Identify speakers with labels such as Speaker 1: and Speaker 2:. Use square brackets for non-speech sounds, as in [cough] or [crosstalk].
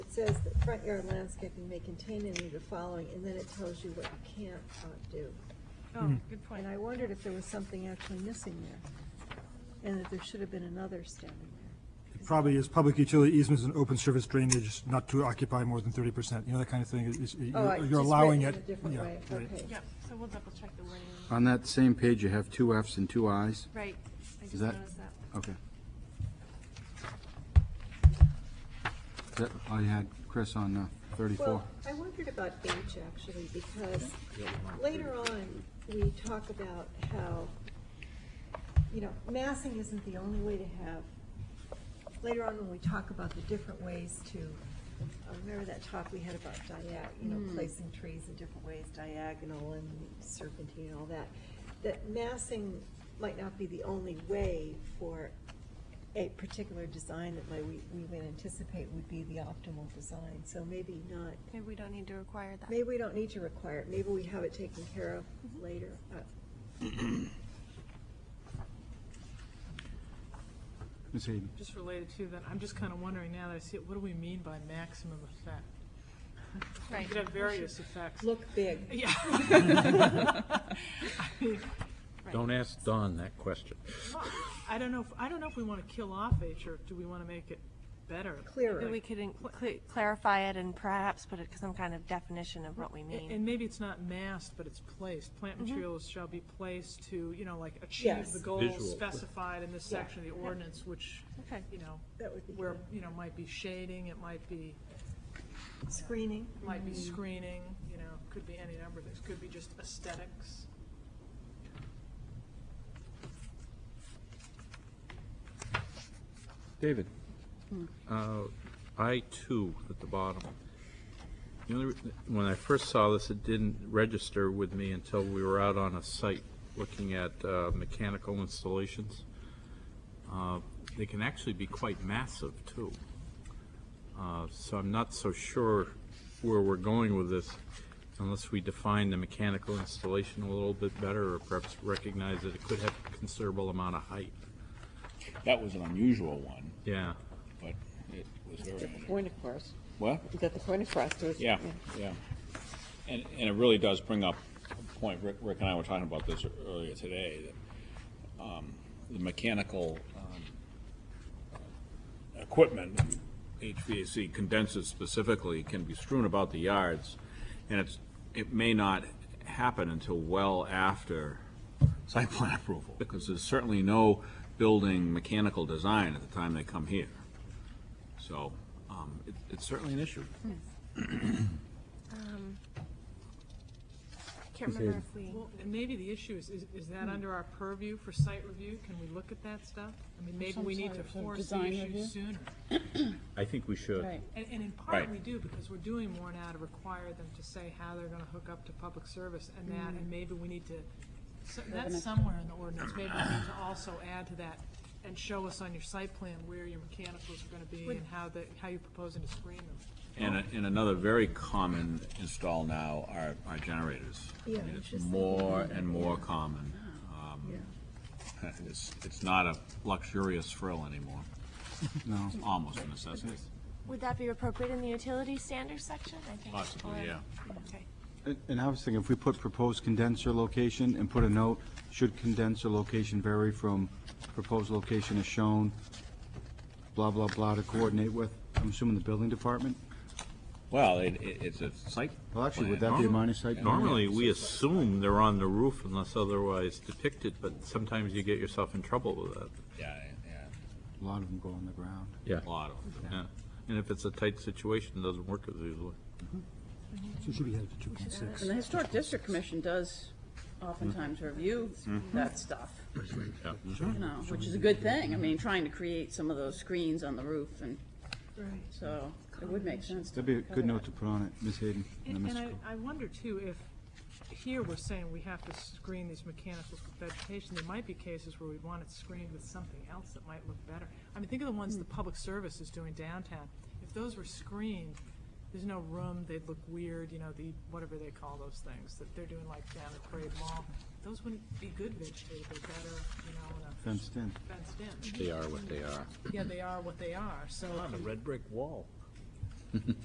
Speaker 1: says that front yard landscaping may contain any of the following, and then it tells you what you can't uh, do.
Speaker 2: Hmm.
Speaker 3: Oh, good point.
Speaker 1: And I wondered if there was something actually missing there, and that there should have been another standing there.
Speaker 4: It probably is public utility easements and open service drainage not to occupy more than thirty percent, you know, that kind of thing, is- is,
Speaker 1: Oh, I
Speaker 4: you're-
Speaker 1: just
Speaker 4: you're
Speaker 1: read
Speaker 4: allowing
Speaker 1: it
Speaker 4: it.
Speaker 1: in a different
Speaker 4: yeah,
Speaker 1: way.
Speaker 4: right.
Speaker 1: Okay.
Speaker 3: Yeah, so we'll double check the wording.
Speaker 2: On that same page, you have two Fs and two Is.
Speaker 3: Right, I just
Speaker 2: that-
Speaker 3: noticed that.
Speaker 2: Okay. Is that all you had, Chris, on uh, 34?
Speaker 1: Well, I wondered about H actually, because later on, we talk about how, you know, massing isn't the only way to have, later on when we talk about the different ways to, uh, remember that talk we had about diag, you know, placing trees in different ways, diagonal and serpentine and all that, that massing might not be the only way for a particular design that might, we, we would anticipate would be the optimal design, so maybe not
Speaker 3: Maybe we don't need to require that.
Speaker 1: Maybe we don't need to require it, maybe we have it taken care of later. Uh,
Speaker 2: Ms. Hayden?
Speaker 5: Just related to that, I'm just kind of wondering now that I see it, what do we mean by maximum effect?
Speaker 3: Right.
Speaker 5: You could have various effects.
Speaker 1: Look big.
Speaker 5: Yeah. [laughs] I mean,
Speaker 6: Don't ask Don that question.
Speaker 5: I don't know, if I don't know if we want to kill off H, or do we want to make it better?
Speaker 1: Clearer.
Speaker 3: Maybe we could in- cl- clarify it and perhaps put it some kind of definition of what we
Speaker 5: A-
Speaker 3: mean. Mm-hmm.
Speaker 5: And maybe it's not massed, but it's placed. Plant materials shall be placed to, you know, like, achieve
Speaker 1: Yes.
Speaker 5: the goals
Speaker 6: Visual.
Speaker 5: specified in this section of the ordinance, which,
Speaker 3: Okay.
Speaker 5: you know,
Speaker 1: That would be
Speaker 5: where, you know, might be shading, it might be
Speaker 1: Screening.
Speaker 5: might be
Speaker 7: Mm.
Speaker 5: screening, you know, could be any number of things, could be just aesthetics.
Speaker 6: David, uh, I two at the bottom. The only re- When I first saw this, it didn't register with me until we were out on a site looking at uh, mechanical installations. Uh, They can actually be quite massive, too. Uh, So I'm not so sure where we're going with this unless we define the mechanical installation a little bit better or perhaps recognize that it could have a considerable amount of height.
Speaker 8: That was an unusual one,
Speaker 6: Yeah.
Speaker 8: but it was very,
Speaker 7: Point across.
Speaker 8: what?
Speaker 7: You got the point across. there was-
Speaker 8: Yeah, yeah. And, and it really does bring up a point, Rick, Rick and I were talking about this earlier today, that, um, the mechanical, um, equipment, HVAC condensers specifically, can be strewn about the yards, and it's, it may not happen until well after site [laughs] plan approval, because there's certainly no building mechanical design at the time they come here. So, um, it, it's certainly an issue.
Speaker 3: Can't remember if
Speaker 7: Mm.
Speaker 3: we,
Speaker 5: Well, and maybe the issue is, is, is that under our purview for site review? Can we look at that stuff? I mean, maybe we need to
Speaker 7: sort of
Speaker 5: force the
Speaker 7: design
Speaker 5: issue
Speaker 7: review?
Speaker 5: sooner.
Speaker 6: I think we should.
Speaker 7: Right.
Speaker 5: And, and in part,
Speaker 8: Right.
Speaker 5: we do, because we're doing more now to require them to say how they're gonna hook up to public service and that,
Speaker 7: Mm.
Speaker 5: and maybe we need to, so- that's somewhere in the ordinance, maybe we need to also add to that and show us on your site plan where your mechanicals are gonna be and how the, how you're proposing to screen them.
Speaker 8: And, a- and another very common install now are, are generators. I
Speaker 1: Yeah,
Speaker 8: mean,
Speaker 1: I was
Speaker 8: It's
Speaker 1: just thinking
Speaker 8: more
Speaker 1: about that,
Speaker 8: and more common.
Speaker 1: Yeah.
Speaker 8: It's, it's not a luxurious frill anymore.
Speaker 2: No.
Speaker 8: It's almost a necessity,
Speaker 3: would that be appropriate in the utility standards section? I think- or-
Speaker 8: possibly, yeah.
Speaker 3: Okay.
Speaker 2: And- And I was thinking, if we put proposed condenser location and put a note, should condenser location vary from proposed location as shown, blah, blah, blah, to coordinate with, I'm assuming the building department?
Speaker 8: Well, it, it- it's a site.
Speaker 2: Well, actually, would
Speaker 8: plan.
Speaker 2: that be a minor site? plan?
Speaker 6: Normally, we assume they're on the roof unless otherwise depicted, but sometimes you get yourself in trouble with that.
Speaker 8: Yeah, yeah,
Speaker 2: A lot of them go on the ground.
Speaker 6: Yeah.
Speaker 8: a lot of them.
Speaker 6: Yeah. And if it's a tight situation, it doesn't work as easily.
Speaker 4: So should we have the two point six?
Speaker 7: And the Historic District Commission does oftentimes review
Speaker 2: Mm-hmm.
Speaker 7: that stuff, you know, which is a good thing. I mean, trying to create some of those screens on the roof and
Speaker 1: Right.
Speaker 7: so it would make sense. to
Speaker 2: That'd be a
Speaker 7: cover
Speaker 2: good note to
Speaker 7: that.
Speaker 2: put on it, Ms. Hayden. and
Speaker 5: And
Speaker 2: Mr.
Speaker 5: and
Speaker 2: Cole.
Speaker 5: I, I wonder too, if here we're saying we have to screen these mechanicals with vegetation, there might be cases where we want it screened with something else that might look better. I mean, think of the ones the public service is doing downtown. If those were screened, there's no room, they'd look weird, you know, the, whatever they call those things, that they're doing like down at Parade Mall. Those wouldn't be good vegetated, they're better, you know, in a
Speaker 2: Fenced in.
Speaker 5: fenced in.
Speaker 6: They are what they are.
Speaker 5: Yeah, they are what they are, so.
Speaker 6: red brick wall.